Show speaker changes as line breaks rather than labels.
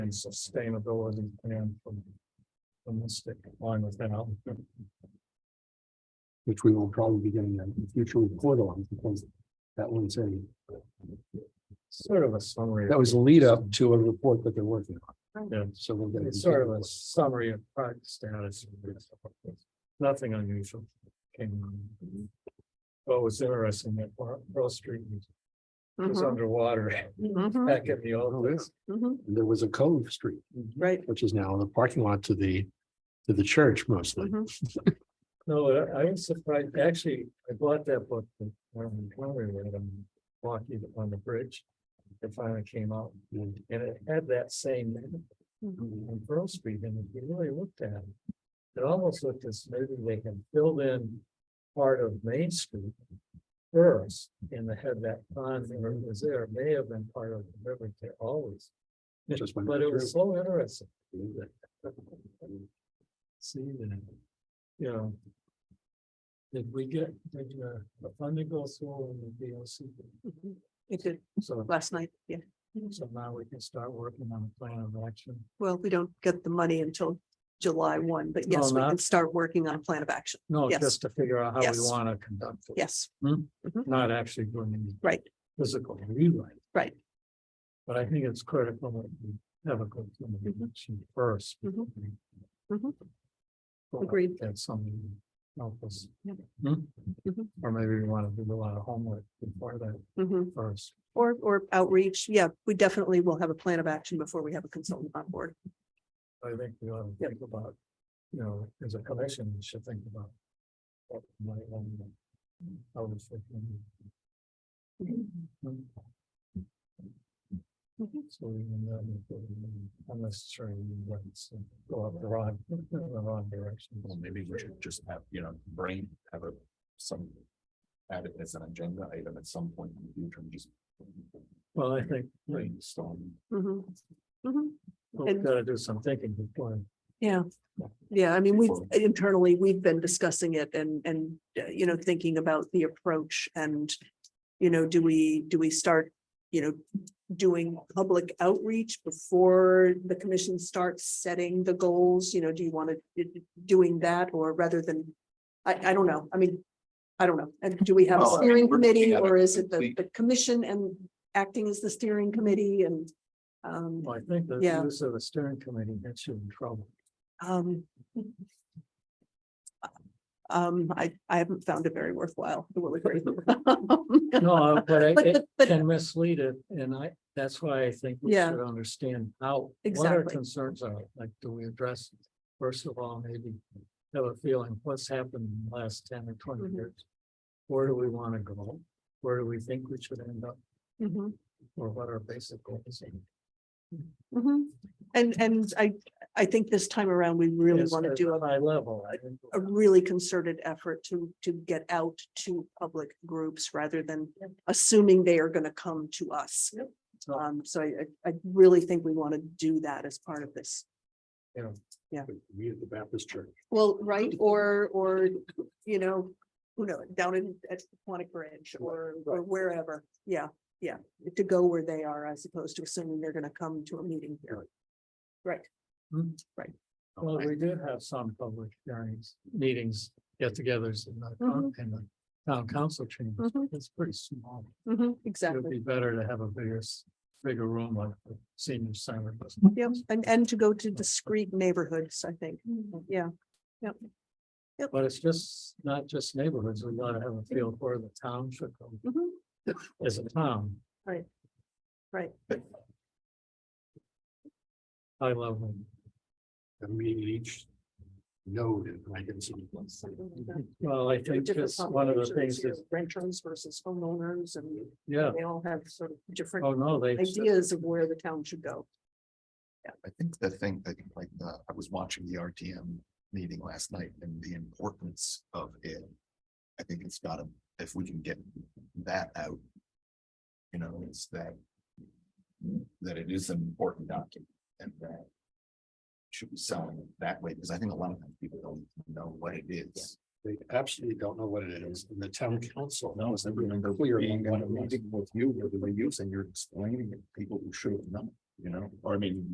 sustainability plan from. From the stick line with that.
which we will probably be getting a future report on because that one's a,
Sort of a summary.
that was a lead up to a report that they're working
Yeah.
on. So we'll get.
It's sort of a summary of product status. Nothing unusual. came on. What was interesting that Pearl Street was
Mhm,
underwater
mhm,
back in the old
Oh, yeah.
days. mm-hmm,
mhm.
There was a Cove Street,
Right,
which is now the parking lot to the, to the church mostly.
No, I- I was surprised, actually, I bought that book, that Norman Plummer read on Rocky on the Bridge. It finally came out,
And
and it had that same name
Mhm.
on Pearl Street, and if you really looked at it. It almost looked as maybe they can build in part of Main Street. First, and they had that pond that was there, it may have been part of the river there always,
it just went
but it was
through.
so interesting. See that, you know. Did we get, did uh, the funding go through in the DOC?
Mhm. It did
So,
last night, yeah.
so now we can start working on a plan of action.
Well, we don't get the money until July one, but yes,
Oh,
we
not-
can start working on a plan of action.
No,
Yes.
just to figure out how we
Yes.
want to conduct it,
Yes,
not actually doing any
right,
physical rewrite.
Right.
But I think it's critical that we have a good communication
Mm-hmm.
first.
Mhm. Mhm.
Well,
Agreed.
That's something to help us.
Yep.
Hmm?
Mhm.
Or maybe we want to do a lot of homework before that
mhm.
first.
or, or outreach, yeah, we definitely will have a plan of action before we have a consultant on board.
I think we ought to
Yep.
think about, you know, as a commission, we should think about. what we might want to- how we should, um, So we can, um, unnecessary ones and go up the wrong, the wrong direction.
Well, maybe we should just have, you know, brain, have a, some. Add it as an agenda item at some point in the future and just
Well, I think we-
brainstorm.
Mm-hmm,
Mhm, mhm.
we've got to do some thinking before.
Yeah, yeah, I mean, we've
Before-
internally, we've been discussing it and, and, uh, you know, thinking about the approach and. You know, do we, do we start, you know, doing public outreach before the commission starts setting the goals? You know, do you want to, doing that or rather than, I, I don't know, I mean. I don't know, and do we have a
Well, I mean,
steering
we're-
committee
yeah,
or is it the,
we-
the commission and acting as the steering committee and? Um,
Well, I think the
Yeah.
use of a steering committee gets you in trouble.
um. Um, I, I haven't found it very worthwhile, I will agree.
No, uh, but
But,
I- it
the- but,
can mislead it, and I, that's why I think we
Yeah.
should understand how, what our
Exactly.
concerns are, like, do we address? First of all, maybe have a feeling, what's happened in the last ten or twenty
Mhm.
years? Where do we wanna go? Where do we think we should end up,
Mhm,
or what our basic goals? are?
mhm. And, and I, I think this time around, we really
It's
want to
at
do a,
High level, I think.
a really concerted effort to, to get out to public groups rather than assuming they are going to come to us.
Yep.
Um, so I, I- I really think we want to do that as part of this.
We at the Baptist church.
Well, right, or, or, you know, who knows, down in, at Quantic Bridge or, or wherever, yeah, yeah. To go where they are as opposed to assuming they're gonna come to a meeting here. Right,
Hmm.
Right.
Well, we did have some public hearings, meetings, get-togethers in the, town-
Mm-hmm.
in the town council chamber.
Mhm.
It's pretty small.
Mhm,
It'd
exactly,
be better to have a bigger, s- bigger room like the senior center. does.
yeah, and, and to go to discrete neighborhoods, I think, yeah.
But it's just, not just neighborhoods, we gotta have a feel for the town should go
Mhm.
as a town.
Right. Right.
High level.
A meeting at each node in Lincoln City.
Well, I
There are
think
different
just one of the things
populations, you know,
is,
Renters versus homeowners and
yeah,
they all have sort of different
oh, no, they.
ideas of where the town should go.
I think the thing that like, uh, I was watching the RTM meeting last night and the importance of it. I think it's gotta, if we can get that out. You know, it's that. That it is an important document and that. Should be selling that way, because I think a lot of times people don't know what it is.
They absolutely don't know what it is. And the town council
No, it's never been
clear
clear.
on what it was.
With you, whether they use and you're explaining it, to people who should have known, you know, or I mean,